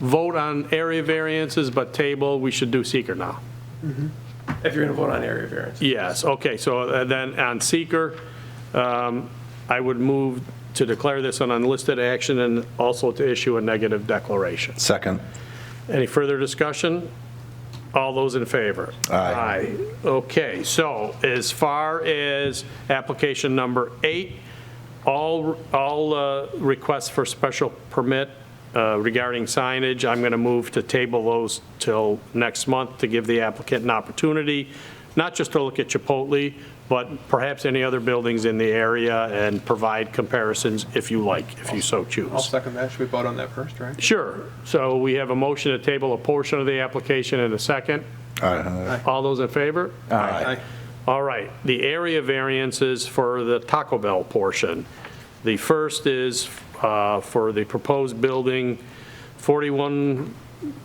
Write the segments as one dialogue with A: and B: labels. A: vote on area variances, but table, we should do seeker now.
B: if you're going to vote on area variance.
A: Yes, okay, so uh, then on seeker, um, I would move to declare this an unlisted action and also to issue a negative declaration.
C: Second.
A: Any further discussion? All those in favor?
C: Aye.
A: Okay, so as far as application number eight, all, all uh, requests for special permit uh, regarding signage, I'm going to move to table those till next month to give the applicant an opportunity, not just to look at Chipotle, but perhaps any other buildings in the area and provide comparisons if you like, if you so choose.
B: I'll second that. Should we vote on that first, right?
A: Sure. So we have a motion to table a portion of the application and a second.
C: Aye.
A: All those in favor?
B: Aye.
A: All right, the area variances for the Taco Bell portion. The first is uh, for the proposed building, 41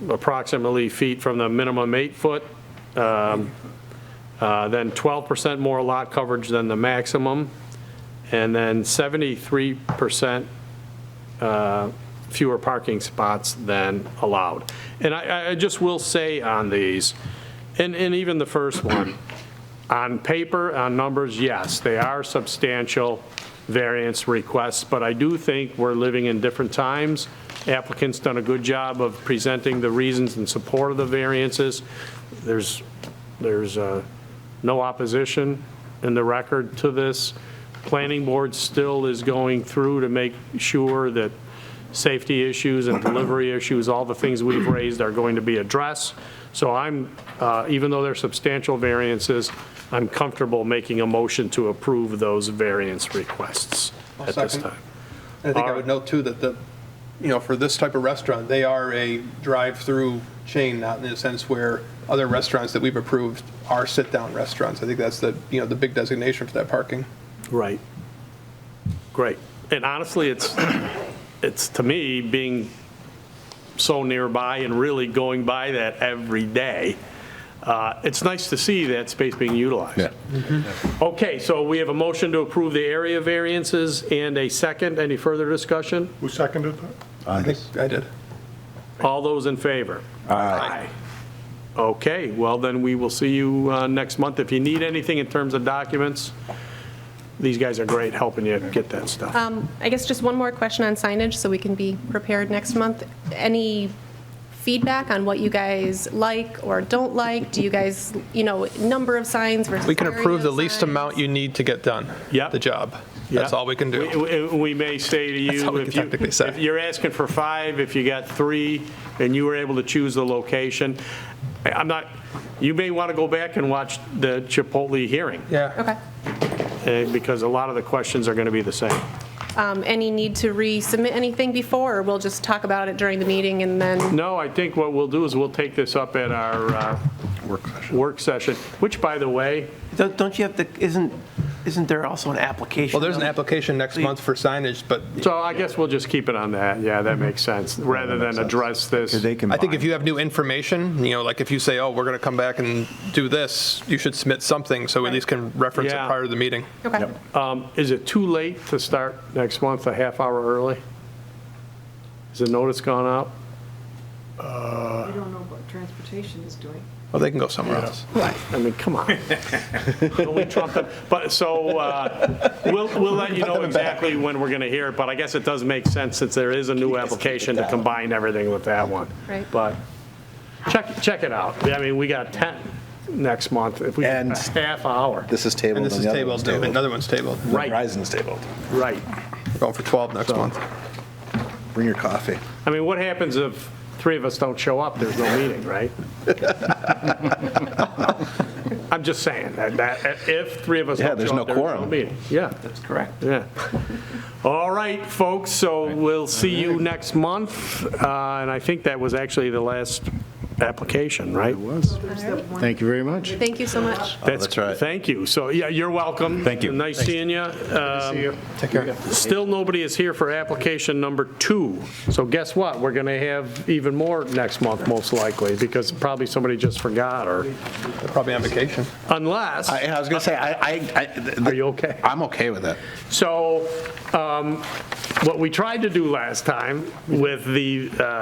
A: approximately feet from the minimum eight foot, um, uh, then 12% more lot coverage than the maximum, and then 73% uh, fewer parking spots than allowed. And I- I, I just will say on these, and, and even the first one, on paper, on numbers, yes, they are substantial variance requests, but I do think we're living in different times. Applicant's done a good job of presenting the reasons in support of the variances. There's, there's uh, no opposition in the record to this. Planning board still is going through to make sure that safety issues and delivery issues, all the things we've raised are going to be addressed. So I'm, uh, even though they're substantial variances, I'm comfortable making a motion to approve those variance requests
B: I'll
A: at this
B: second.
A: time.
B: And I think I would note too that the, you know, for this type of restaurant, they are a drive-through chain, not in the sense where other restaurants that we've approved are sit-down restaurants. I think that's the, you know, the big designation for that parking.
A: Right. Great. And honestly, it's, it's to me, being so nearby and really going by that every day, uh, it's nice to see that space being utilized.
C: Yeah.
A: Okay, so we have a motion to approve the area variances and a second. Any further discussion?
D: Who seconded that?
B: I think I did.
A: All those in favor?
C: Aye.
A: Okay, well, then we will see you uh, next month. If you need anything in terms of documents, these guys are great helping you get that stuff.
E: I guess just one more question on signage, so we can be prepared next month. Any feedback on what you guys like or don't like? Do you guys, you know, number of signs versus
B: We can
E: area
B: approve the
E: of
B: least
E: signs?
B: amount you need to get done.
A: Yep.
B: The job. That's
A: Yeah.
B: all we can do.
A: We- We we may say to
B: That's all
A: you,
B: we
A: if
B: can
A: you,
B: technically say.
A: if you're asking for five, if you got three, and you were able to choose the location, I- I'm not, you may want to go back and watch the Chipotle hearing,
B: Yeah.
E: Okay.
A: eh, because a lot of the questions are going to be the same.
E: Um, Any need to resubmit anything before, or we'll just talk about it during the meeting and then,
A: No, I think what we'll do is we'll take this up at our uh,
C: Work session.
A: work session, which, by the way,
F: Don't don't you have to, isn't, isn't there also an application?
B: Well, there's an application next month for signage, but
A: so I guess we'll just keep it on that. Yeah, that makes sense, rather than address this.
C: They can.
B: I think if you have new information, you know, like if you say, oh, we're going to come back and do this, you should submit something so we at least can reference it
A: Yeah.
B: prior to the meeting.
E: okay.
A: Um, Is it too late to start next month, a half hour early? Has the notice gone out?
G: We don't know what transportation is doing.
B: Well, they can go somewhere else.
A: I mean, come on. Don't we trump them? But, so, uh, we'll, we'll let you know exactly when we're going to hear it, but I guess it does make sense, since there is a new application, to combine everything with that one.
E: Right.
A: But check, check it out. I mean, we got 10 next month, if we, a
C: And-
A: half hour.
C: This is tabled.
B: And this is
C: the other
B: tabled,
C: one's
B: David. another one's tabled.
A: Right.
C: Verizon's tabled.
A: Right.
B: We're going for 12 next month.
C: Bring your coffee.
A: I mean, what happens if three of us don't show up? There's no meeting, right? I'm just saying, that, that, if three of us
C: Yeah,
A: don't
C: there's
A: show
C: no
A: up, there's no
C: quorum.
A: meeting. Yeah.
F: That's correct.
A: Yeah. All right, folks, so we'll see you next month, uh, and I think that was actually the last application, right?
H: Thank you very much.
E: Thank you so much.
C: that's right.
A: Thank you. So, yeah, you're welcome. Thank you. Nice seeing you. Um,
B: Take care.
A: Still, nobody is here for application number two. So guess what? We're going to have even more next month, most likely, because probably somebody just forgot, or
B: They're probably on vacation.
A: unless,
C: I, I was gonna say, I, I- I. th-
A: are you okay?
C: I'm okay with it.
A: So um, what we tried to do last time with the uh,